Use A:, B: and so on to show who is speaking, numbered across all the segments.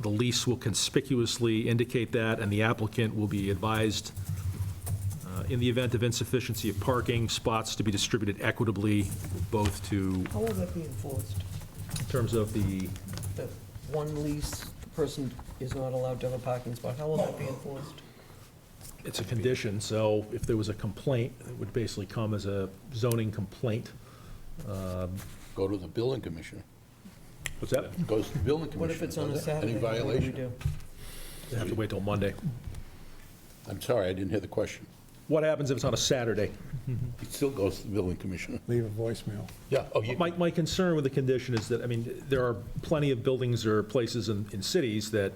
A: The lease will conspicuously indicate that, and the applicant will be advised uh, in the event of insufficiency of parking, spots to be distributed equitably, both to,
B: How will that be enforced?
A: in terms of the,
B: That one lease, the person is not allowed to have a parking spot, how will that be enforced?
A: it's a condition, so if there was a complaint, it would basically come as a zoning complaint.
C: Go to the building commissioner.
A: What's that?
C: Goes to the building commissioner.
B: What if it's on a
C: does it?
B: Saturday?
C: Any
B: What do we
C: violation?
B: do?
A: You have to wait till Monday.
C: I'm sorry, I didn't hear the question.
A: What happens if it's on a Saturday?
C: It still goes to the building commissioner.
D: Leave a voicemail.
C: Yeah, oh, you,
A: My, my concern with the condition is that, I mean, there are plenty of buildings or places in, in cities that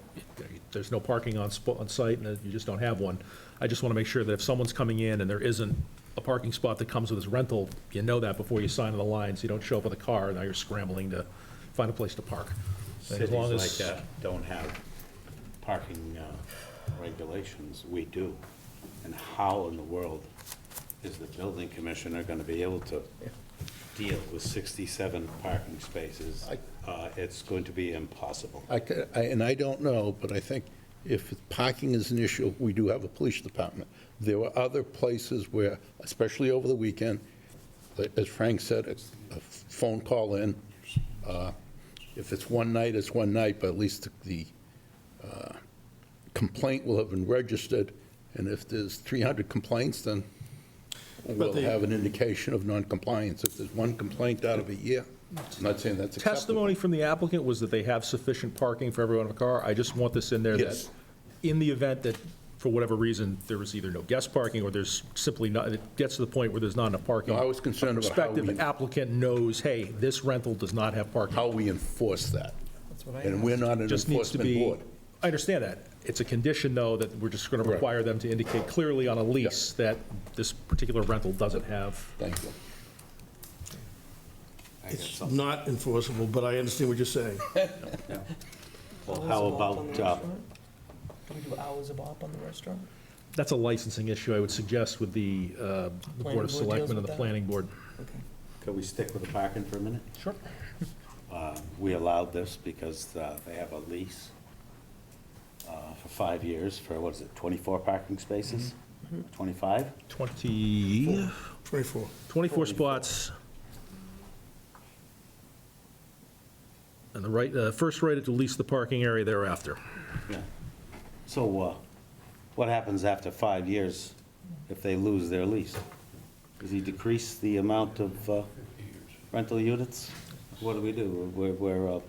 A: there's no parking on, spo- on site, and that you just don't have one. I just want to make sure that if someone's coming in and there isn't a parking spot that comes with this rental, you know that before you sign on the line, so you don't show up with a car, and now you're scrambling to find a place to park. And as
E: Cities
A: long
E: like
A: as-
E: that don't have parking uh, regulations, we do. And how in the world is the building commissioner gonna be able to deal with sixty-seven parking spaces? Uh, It's going to be impossible.
C: I ca- I- and I don't know, but I think if parking is an issue, we do have a police department. There were other places where, especially over the weekend, like- as Frank said, it's a phone call in. Uh, If it's one night, it's one night, but at least the uh, complaint will have been registered, and if there's 300 complaints, then we'll
D: the-
C: have an indication of noncompliance. If there's one complaint out of a year, I'm not saying that's acceptable.
A: Testimony from the applicant was that they have sufficient parking for everyone in the car. I just want this in there that,
C: Yes.
A: in the event that, for whatever reason, there was either no guest parking or there's simply not, it gets to the point where there's not enough parking.
C: No, I was concerned about how
A: Prospective
C: we-
A: applicant knows, hey, this rental does not have parking.
C: how we enforce that.
B: That's what I
C: And we're not an
A: Just needs to
C: enforcement
A: be,
C: board.
A: I understand that. It's a condition, though, that we're just going to
C: Right.
A: require them to indicate clearly on a lease that this particular rental doesn't have.
C: Thank you.
E: I got
D: It's
E: something.
D: not enforceable, but I understand what you're saying.
E: Well,
B: Hours
E: how
B: of op on
E: about,
B: the
E: uh,
B: restaurant? Can we do hours of op on the restaurant?
A: That's a licensing issue, I would suggest, with the uh, the
B: Planning
A: Board
B: board
A: of
B: deals
A: Selectmen and
B: with
A: the
B: that?
A: Planning Board.
B: Okay.
E: could we stick with the parking for a minute?
A: Sure.
E: Uh, We allowed this because uh, they have a lease uh, for five years for, what is it, twenty-four parking spaces?
B: Mm-hmm.
E: Twenty-five?
A: 20,
D: 24.
A: 24 spots. And the right, uh, first right to lease the parking area thereafter.
E: Yeah. So uh, what happens after five years if they lose their lease? Does he decrease the amount of uh, rental units? What do we do? We're, we're uh,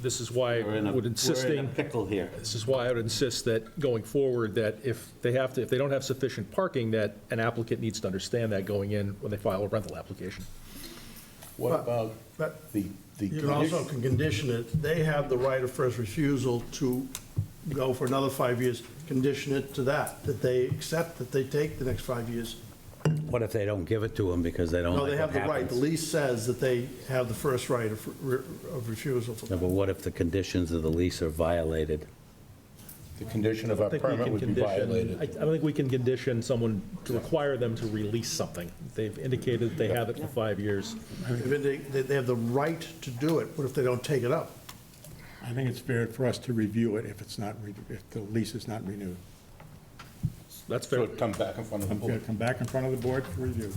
A: This is why
E: we're in
A: I
E: a,
A: would
E: we're in a
A: insisting,
E: pickle here.
A: this is why I would insist that going forward, that if they have to, if they don't have sufficient parking, that an applicant needs to understand that going in when they file a rental application.
C: What
D: But-
C: about
D: but
C: the, the
D: You can also
C: condition?
D: can condition it, they have the right of first refusal to go for another five years, condition it to that, that they accept that they take the next five years.
F: What if they don't give it to them because they don't
D: No,
F: like
D: they
F: what
D: have the right, the
F: happens?
D: lease says that they have the first right of re- of refusal for
F: No,
D: that.
F: but what if the conditions of the lease are violated?
C: The condition of
A: I
C: our
A: think we
C: permit
A: can
C: would be
A: condition- I I
C: violated.
A: don't think we can condition someone to require them to release something. They've indicated they have it for five years.
D: If They they- they have the right to do it, what if they don't take it up?
G: I think it's fair for us to review it if it's not, re- if the lease is not renewed.
A: That's
C: So
A: fair.
C: it come back in front of the
G: I'm going
C: board.
G: to come back in front of the board for review.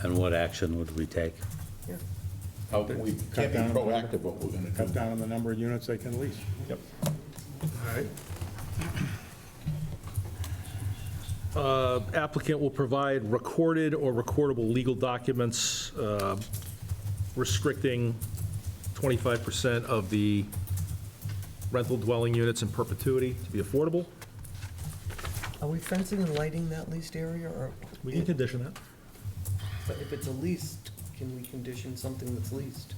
F: And what action would we take?
C: How can We can't
G: Cut
C: be
G: down on the number-
C: proactive what we're going to
G: Cut
C: do.
G: down on the number of units they can lease.
A: Yep.
D: All right,
A: Uh, Applicant will provide recorded or recordable legal documents uh, restricting 25% of the rental dwelling units in perpetuity to be affordable.
B: Are we fencing and lighting that leased area, or
A: We can condition that.
B: but if it's a leased, can we condition something that's leased?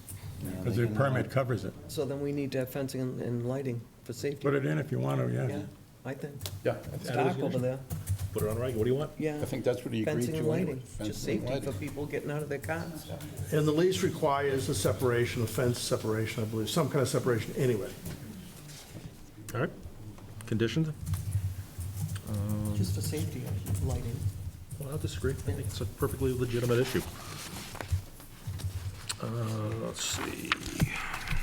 G: Because the permit covers it.
B: So then we need to have fencing and- and lighting for safety.
G: Put it in if you want to, yeah.
B: Yeah, I think.
C: Yeah,
B: It's
A: That is
B: dark over
A: good.
B: there,
A: Put it on record. What do you want?
B: yeah.
C: I think that's what he agreed to.
B: Fencing and
C: anyway.
B: lighting, just
C: Fencing and
B: safety for
C: lighting.
B: people getting out of their cars.
D: and the lease requires a separation, a fence separation, I believe, some kind of separation anyway.
A: All right. Conditioned?
B: Just for safety, lighting.
A: Well, I don't disagree. I think it's a perfectly legitimate issue. Uh, Let's see.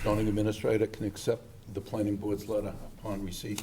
C: Zoning administrator can accept the planning board's letter upon receipt